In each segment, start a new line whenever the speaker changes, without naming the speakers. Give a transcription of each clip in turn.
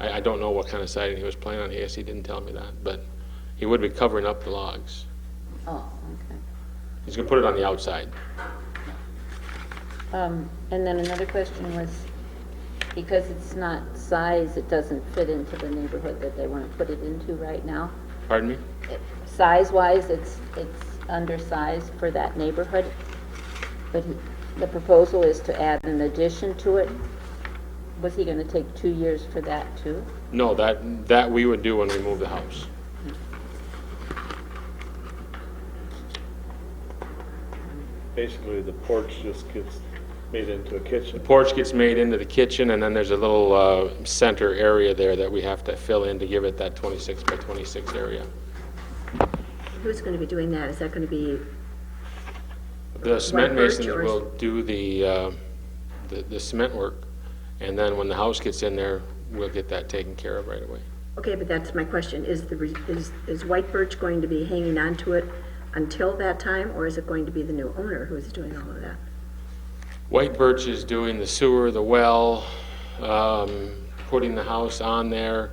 I, I don't know what kind of siding he was planning on, yes, he didn't tell me that, but he would be covering up the logs.
Oh, okay.
He's gonna put it on the outside.
Um, And then another question was, because it's not size, it doesn't fit into the neighborhood that they want to put it into right now?
Pardon me?
It- Size-wise, it's, it's undersized for that neighborhood, but he- the proposal is to add an addition to it. Was he going to take two years for that, too?
No, that, that we would do when we move the house.
Basically, the porch just gets made into a kitchen.
Porch gets made into the kitchen, and then there's a little, uh, center area there that we have to fill in to give it that twenty-six by twenty-six area.
Who's going to be doing that? Is that going to be,
The cement
birch
masons
or-
will do the, uh, the the cement work, and then when the house gets in there, we'll get that taken care of right away.
okay, but that's my question. Is the, re- is, is White Birch going to be hanging on to it until that time, or is it going to be the new owner who's doing all of that?
White Birch is doing the sewer, the well, um, putting the house on there.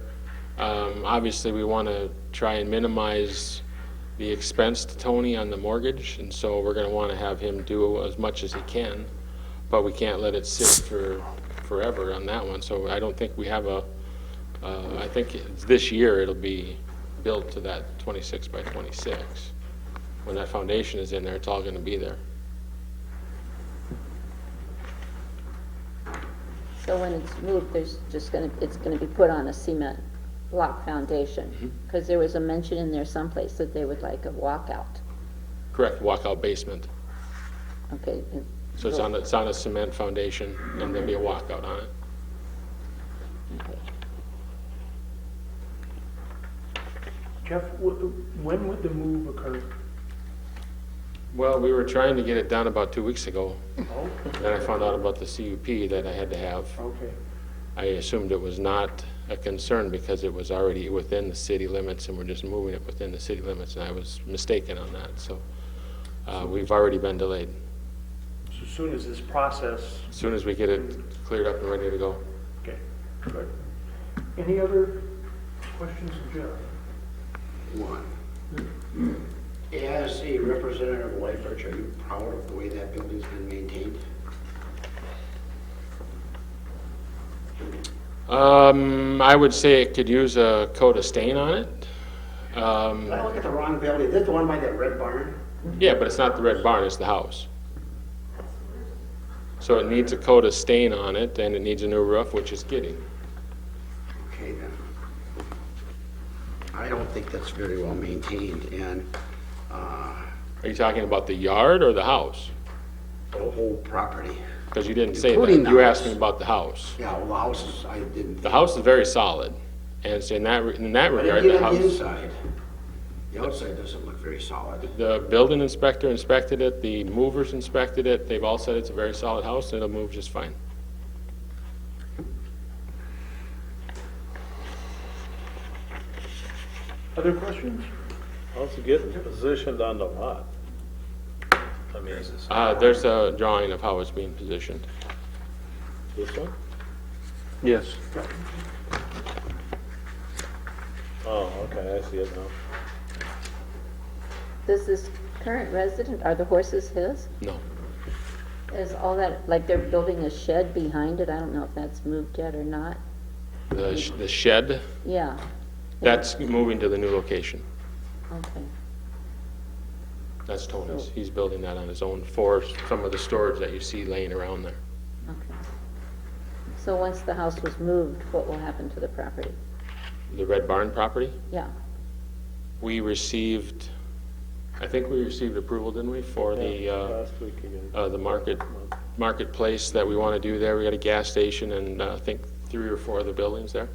Um, Obviously, we want to try and minimize the expense to Tony on the mortgage, and so we're going to want to have him do as much as he can, but we can't let it sit for forever on that one, so I don't think we have a, uh, I think it's this year it'll be built to that 26 by 26. When that foundation is in there, it's all going to be there.
So when it's moved, there's just going to, it's going to be put on a cement block
Mm-hmm.
foundation? Because there was a mention in there someplace that they would like a walkout.
Correct, walkout basement.
Okay, and-
So it's on, it's on a cement foundation, and there'll be a walkout on it.
okay.
Jeff, wh- when would the move occur?
Well, we were trying to get it done about two weeks ago.
Oh.
Then I found out about the CUP that I had to have.
Okay.
I assumed it was not a concern because it was already within the city limits, and we're just moving it within the city limits, and I was mistaken on that, so uh, we've already been delayed.
So as soon as this process,
As soon as we get it cleared up and ready to go.
okay, good. Any other questions of Jeff?
One. As a representative of Life Arch, are you proud of the way that building's been maintained?
Um, I would say it could use a coat of stain on it. Um,
Did I look at the wrong building? Is this the one by that red barn?
Yeah, but it's not the red barn, it's the house. So it needs a coat of stain on it, and it needs a new roof, which is getting.
Okay, then. I don't think that's very well maintained, and uh,
Are you talking about the yard or the house?
the whole property.
Because you didn't say that.
Including the
You asked
house.
me about the house.
Yeah, well, the houses, I didn't.
The house is very solid, and it's in that, re- in that
But
regard,
even
the
on the
house.
inside, the outside doesn't look very solid.
The building inspector inspected it, the movers inspected it, they've all said it's a very solid house, and it'll move just fine.
Other questions?
How's it getting positioned on the lot? I mean, this
Uh, there's a drawing of how it's being positioned.
one?
Yes.
Oh, okay, I see it now.
Does this current resident, are the horses his?
No.
Is all that, like they're building a shed behind it, I don't know if that's moved yet or not.
The sh- the shed,
Yeah,
that's moving to the new location.
okay.
That's Tony's. He's building that on his own for some of the storage that you see laying around there.
Okay. So once the house was moved, what will happen to the property?
The Red Barn property,
Yeah,
we received, I think we received approval, didn't we, for the, uh,
Last week again.
uh, the market, marketplace that we want to do there? We got a gas station and uh, I think three or four other buildings there.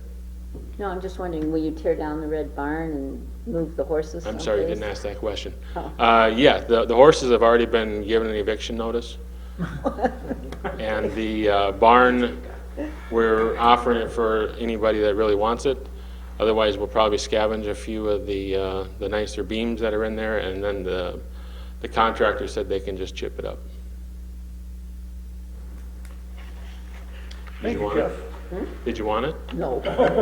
no, I'm just wondering, will you tear down the red barn and move the horses
I'm sorry, you didn't
someplace?
ask that question.
Oh.
Uh, yeah, the, the horses have already been given an eviction notice. And the uh, barn, we're offering it for anybody that really wants it. Otherwise, we'll probably scavenge a few of the, uh, the nicer beams that are in there, and then the, the contractor said they can just chip it up. Did
Thank you,
want
Jeff.
it? Did you want it?
No.